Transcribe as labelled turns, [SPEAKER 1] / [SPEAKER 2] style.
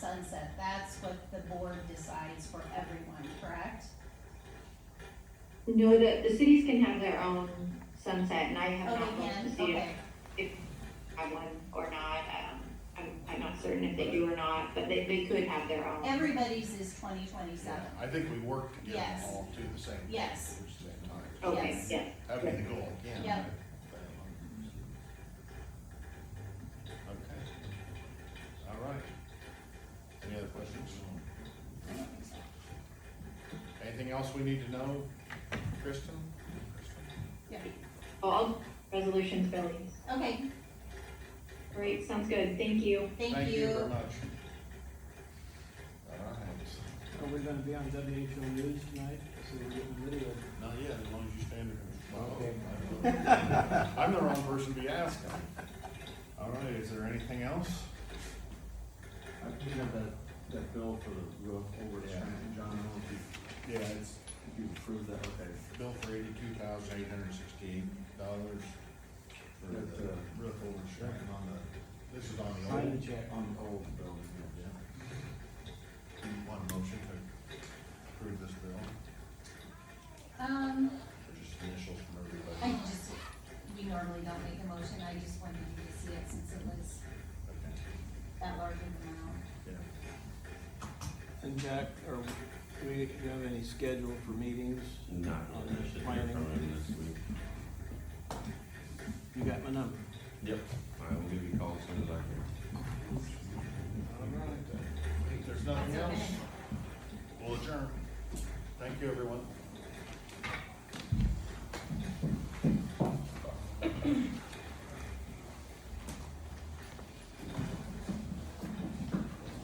[SPEAKER 1] board decides for everyone, correct?
[SPEAKER 2] No, the, the cities can have their own sunset, and I
[SPEAKER 1] Oh,
[SPEAKER 2] have not
[SPEAKER 1] they
[SPEAKER 2] looked to
[SPEAKER 1] can,
[SPEAKER 2] see if
[SPEAKER 1] okay,
[SPEAKER 2] I have one or not, um, I'm, I'm not certain if they do or not, but they, they could have their own.
[SPEAKER 1] everybody's is twenty twenty-seven,
[SPEAKER 3] I think we work to get them
[SPEAKER 1] Yes.
[SPEAKER 3] all to the same.
[SPEAKER 1] Yes.
[SPEAKER 3] Same time.
[SPEAKER 2] Okay,
[SPEAKER 1] yes.
[SPEAKER 2] yeah,
[SPEAKER 3] That'd be the goal, yeah.
[SPEAKER 1] Yep.
[SPEAKER 3] Okay. All right. Any other questions? Anything else we need to know, Kristen?
[SPEAKER 2] all resolutions, Billy.
[SPEAKER 1] okay,
[SPEAKER 2] Great, sounds good, thank you.
[SPEAKER 1] thank
[SPEAKER 3] very
[SPEAKER 1] you.
[SPEAKER 3] much. All right.
[SPEAKER 4] Are we gonna be on WHO News tonight? So we're getting video.
[SPEAKER 3] Not yet, as long as you stand there. I'm the wrong person to be asking. All right, is there anything else?
[SPEAKER 5] I cleaned up that, that bill for the roof over at
[SPEAKER 3] Yeah.
[SPEAKER 5] Stratton, John, I don't know if you,
[SPEAKER 3] Yeah, it's
[SPEAKER 5] if you approved that, okay.
[SPEAKER 3] bill for eighty-two thousand eight hundred sixteen dollars for
[SPEAKER 5] That's,
[SPEAKER 3] the
[SPEAKER 5] uh,
[SPEAKER 3] roof over Stratton on the, this is on the
[SPEAKER 4] Sign
[SPEAKER 3] old.
[SPEAKER 4] the check.
[SPEAKER 5] On the old building, yeah.
[SPEAKER 3] Do you want a motion to approve this bill, or
[SPEAKER 1] Um,
[SPEAKER 3] just initials from
[SPEAKER 1] I
[SPEAKER 3] everybody?
[SPEAKER 1] just, we normally don't make a motion, I just wanted you to see it since it was
[SPEAKER 3] Okay,
[SPEAKER 1] that large of an amount.
[SPEAKER 3] yeah.
[SPEAKER 4] And Jack, are, we- do you have any schedule for meetings?
[SPEAKER 6] Not really, I should hear from him this week.
[SPEAKER 4] You got my number?
[SPEAKER 6] Yep. I will give you a call as soon as I can.
[SPEAKER 3] All right, then. If there's nothing
[SPEAKER 1] That's
[SPEAKER 3] else,
[SPEAKER 1] okay.
[SPEAKER 3] we'll adjourn. Thank you, everyone.